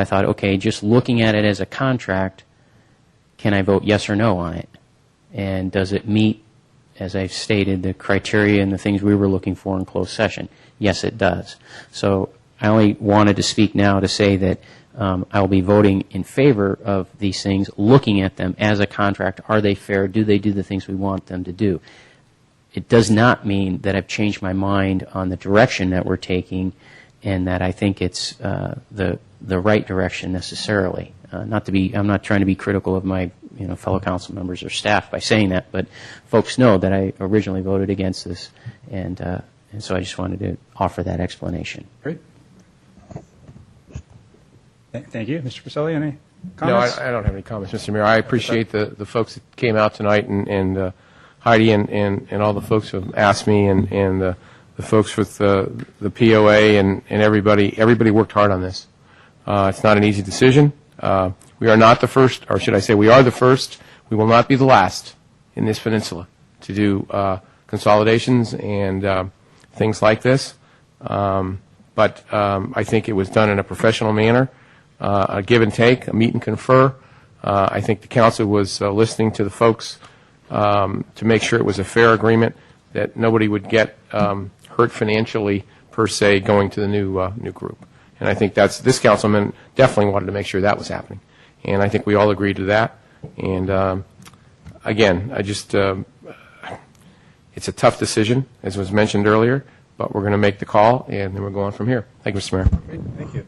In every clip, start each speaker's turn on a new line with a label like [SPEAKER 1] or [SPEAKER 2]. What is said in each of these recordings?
[SPEAKER 1] I thought, okay, just looking at it as a contract, can I vote yes or no on it? And does it meet, as I've stated, the criteria and the things we were looking for in closed session? Yes, it does. So I only wanted to speak now to say that um, I will be voting in favor of these things, looking at them as a contract. Are they fair? Do they do the things we want them to do? it does not mean that I've changed my mind on the direction that we're taking and that I think it's uh, the, the right direction necessarily. Uh, not to be, I'm not trying to be critical of my you know, fellow council members or staff by saying that, but folks know that I originally voted against this, and, uh, and so I just wanted to offer that explanation.
[SPEAKER 2] Great. Th- Thank you. Mr. Priscilla, any
[SPEAKER 3] No,
[SPEAKER 2] comments?
[SPEAKER 3] I I don't have any comments, Mr. Mayor. I appreciate the, the folks that came out tonight and- and uh, Heidi and, and and all the folks who asked me and, and uh, the folks with uh, the POA and, and everybody, everybody worked hard on this. Uh, It's not an easy decision. Uh, We are not the first, or should I say, we are the first, we will not be the last in this peninsula to do uh, consolidations and um, things like this. Um, But um, I think it was done in a professional manner, uh, a give and take, a meet and confer. Uh, I think the council was uh, listening to the folks um, to make sure it was a fair agreement, that nobody would get um, hurt financially, per se, going to the new, uh, new group. And I think that's, this councilman definitely wanted to make sure that was happening. And I think we all agreed to that. And um, again, I just, um, it's a tough decision, as was mentioned earlier, but we're going to make the call, and then we're going from here. Thank you, Mr. Mayor.
[SPEAKER 2] Great. Thank you.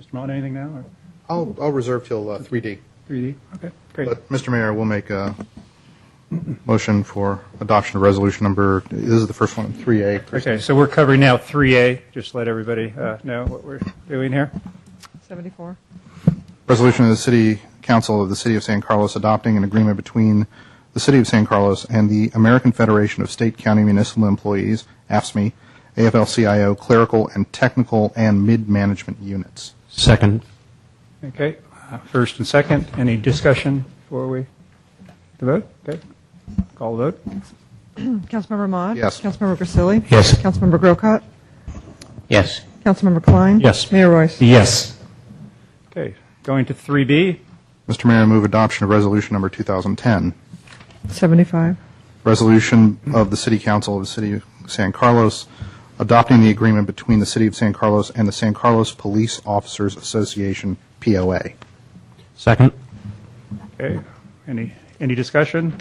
[SPEAKER 2] Mr. Mullen, anything now, or
[SPEAKER 4] I'll, I'll reserve till uh, 3D.
[SPEAKER 2] 3D? Okay, great.
[SPEAKER 4] But, Mr. Mayor, we'll make a motion for adoption of resolution number, this is the first one, 3A. correct?
[SPEAKER 2] Okay, so we're covering now 3A, just to let everybody uh, know what we're doing here.
[SPEAKER 5] 74.
[SPEAKER 4] Resolution of the City Council of the City of San Carlos adopting an agreement between the City of San Carlos and the American Federation of State County Municipal Employees, AFSME, AFL-CIO Clerical and Technical and Mid-Management Units.
[SPEAKER 6] Second.
[SPEAKER 2] Okay, uh, first and second, any discussion before we the vote? Okay, call the vote.
[SPEAKER 5] Councilmember Mod?
[SPEAKER 4] Yes.
[SPEAKER 5] Councilmember Grisilli?
[SPEAKER 6] Yes.
[SPEAKER 5] Councilmember Grocott?
[SPEAKER 1] Yes.
[SPEAKER 5] Councilmember Klein?
[SPEAKER 6] Yes.
[SPEAKER 5] Mayor Royce?
[SPEAKER 6] Yes.
[SPEAKER 2] Okay, going to 3B,
[SPEAKER 4] Mr. Mayor, I move adoption of resolution number 2010.
[SPEAKER 5] 75.
[SPEAKER 4] resolution of the City Council of the City of San Carlos adopting the agreement between the City of San Carlos and the San Carlos Police Officers Association, POA.
[SPEAKER 6] Second.
[SPEAKER 2] okay, any, any discussion?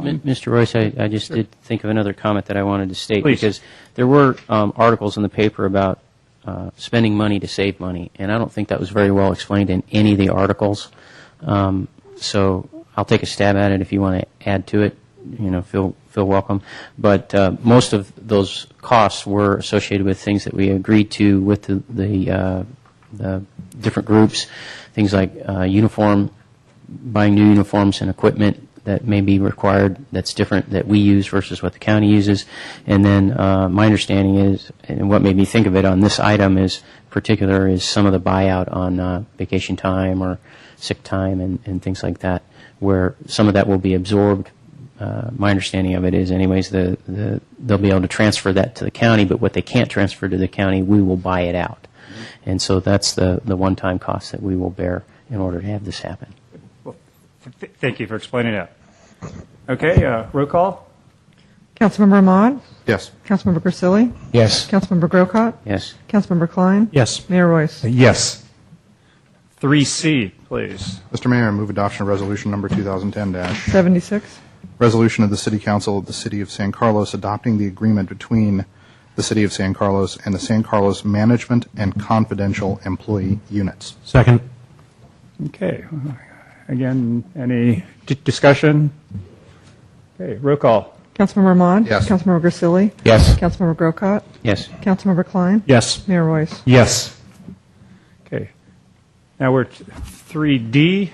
[SPEAKER 1] M- Mr. Royce, I, I just did think of another comment that I wanted to state.
[SPEAKER 2] Please.
[SPEAKER 1] Because there were um, articles in the paper about uh, spending money to save money, and I don't think that was very well explained in any of the articles. Um, so I'll take a stab at it if you want to add to it. You know, feel feel welcome. But uh, most of those costs were associated with things that we agreed to with the the, uh, the different groups, things like uh, uniform buying new uniforms and equipment that may be required that's different that we use versus what the county uses. And then uh, my understanding is, and what made me think of it on this item is particular is some of the buyout on uh, vacation time or sick time and, and things like that, where some of that will be absorbed. Uh, my understanding of it is, anyways, the, the they'll be able to transfer that to the county, but what they can't transfer to the county, we will buy it out. And so that's the, the one-time cost that we will bear in order to have this happen.
[SPEAKER 2] Th- Thank you for explaining that. Okay, uh, roll call?
[SPEAKER 5] Councilmember Mod?
[SPEAKER 4] Yes.
[SPEAKER 5] Councilmember Grisilli?
[SPEAKER 6] Yes.
[SPEAKER 5] Councilmember Grocott?
[SPEAKER 1] Yes.
[SPEAKER 5] Councilmember Klein?
[SPEAKER 6] Yes.
[SPEAKER 5] Mayor Royce?
[SPEAKER 6] Yes.
[SPEAKER 2] 3C, please.
[SPEAKER 4] Mr. Mayor, I move adoption of resolution number 2010 dash.
[SPEAKER 5] 76.
[SPEAKER 4] Resolution of the City Council of the City of San Carlos adopting the agreement between the City of San Carlos and the San Carlos Management and Confidential Employee Units.
[SPEAKER 6] Second.
[SPEAKER 2] Okay, again, any di- discussion? Okay, roll call?
[SPEAKER 5] Councilmember Mod?
[SPEAKER 4] Yes.
[SPEAKER 5] Councilmember Grisilli?
[SPEAKER 6] Yes.
[SPEAKER 5] Councilmember Grocott?
[SPEAKER 1] Yes.
[SPEAKER 5] Councilmember Klein?
[SPEAKER 6] Yes.
[SPEAKER 5] Mayor Royce?
[SPEAKER 6] Yes.
[SPEAKER 2] Okay. Now we're at 3D.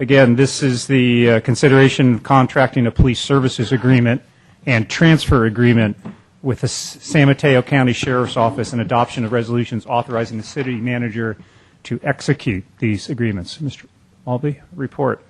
[SPEAKER 2] Again, this is the uh, consideration of contracting a police services agreement and transfer agreement with the S- San Mateo County Sheriff's Office and adoption of resolutions authorizing the city manager to execute these agreements. Mr. Albee, report.